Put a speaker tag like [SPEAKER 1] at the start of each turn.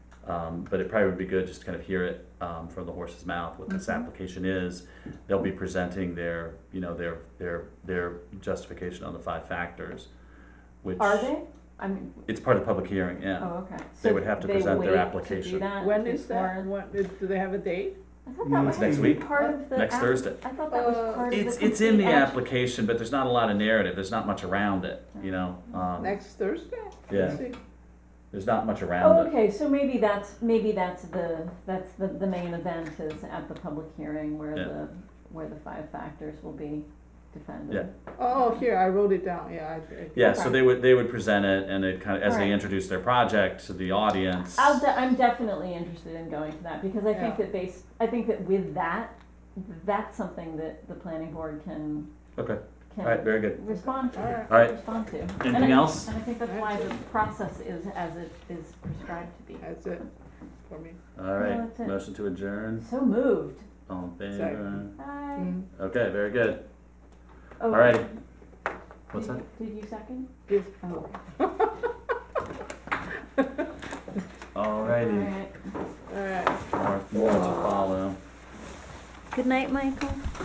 [SPEAKER 1] Um, but it probably would be good just to kind of hear it um, from the horse's mouth what this
[SPEAKER 2] Mhm.
[SPEAKER 1] application is. They'll be presenting their, you know, their their their justification on the five factors, which
[SPEAKER 2] Are they? I mean,
[SPEAKER 1] it's part of the public hearing. Yeah.
[SPEAKER 2] oh, okay.
[SPEAKER 1] They
[SPEAKER 2] So
[SPEAKER 1] would have to
[SPEAKER 2] they
[SPEAKER 1] present their
[SPEAKER 2] wait to do
[SPEAKER 1] application.
[SPEAKER 2] that
[SPEAKER 3] When is that?
[SPEAKER 2] before- Mm.
[SPEAKER 3] What, do they have a date?
[SPEAKER 2] I thought that was
[SPEAKER 1] next
[SPEAKER 2] actually
[SPEAKER 1] week.
[SPEAKER 2] part of the.
[SPEAKER 1] Next
[SPEAKER 2] app-
[SPEAKER 1] Thursday.
[SPEAKER 2] I thought that was
[SPEAKER 4] Uh,
[SPEAKER 2] part of the.
[SPEAKER 1] It's it's in the
[SPEAKER 2] complete app-
[SPEAKER 1] application, but there's not a lot of narrative. There's not much around it. You know.
[SPEAKER 2] Mm-hmm.
[SPEAKER 1] Um,
[SPEAKER 3] Next Thursday?
[SPEAKER 1] Yeah.
[SPEAKER 3] Let's see.
[SPEAKER 1] There's not much around
[SPEAKER 2] Oh,
[SPEAKER 1] it.
[SPEAKER 2] okay, so maybe that's, maybe that's the, that's the, the main event is at the public hearing where
[SPEAKER 1] Yeah.
[SPEAKER 2] the, where the five factors will be defended.
[SPEAKER 1] Yeah.
[SPEAKER 3] Oh, here, I wrote it down, yeah. I- I-
[SPEAKER 1] Yeah, so they would they would present it and it kind of as they
[SPEAKER 2] Oh, Alright.
[SPEAKER 1] introduce their project to the audience.
[SPEAKER 2] I'll de- I'm definitely interested in going to that because I think
[SPEAKER 3] Yeah.
[SPEAKER 2] that based, I think that with that, that's something that the planning board can,
[SPEAKER 1] okay. All right.
[SPEAKER 2] can
[SPEAKER 1] Very good.
[SPEAKER 2] respond
[SPEAKER 3] All
[SPEAKER 2] to,
[SPEAKER 3] right.
[SPEAKER 1] All right.
[SPEAKER 2] respond to. And
[SPEAKER 1] Anything
[SPEAKER 2] I-
[SPEAKER 1] else?
[SPEAKER 2] And I think that's why the process is as it is prescribed to be.
[SPEAKER 3] That's it for me.
[SPEAKER 1] All right.
[SPEAKER 2] that's it.
[SPEAKER 1] Motion to adjourn.
[SPEAKER 2] So moved.
[SPEAKER 1] All in favor.
[SPEAKER 3] Second.
[SPEAKER 2] Hi.
[SPEAKER 3] Mm.
[SPEAKER 1] Okay. Very good.
[SPEAKER 2] Oh,
[SPEAKER 1] All righty. What's
[SPEAKER 2] did-
[SPEAKER 1] that?
[SPEAKER 2] Did you second?
[SPEAKER 3] Give-
[SPEAKER 2] Oh.
[SPEAKER 1] All righty.
[SPEAKER 2] Alright.
[SPEAKER 3] All right.
[SPEAKER 1] More more to follow.
[SPEAKER 2] Good night, Michael.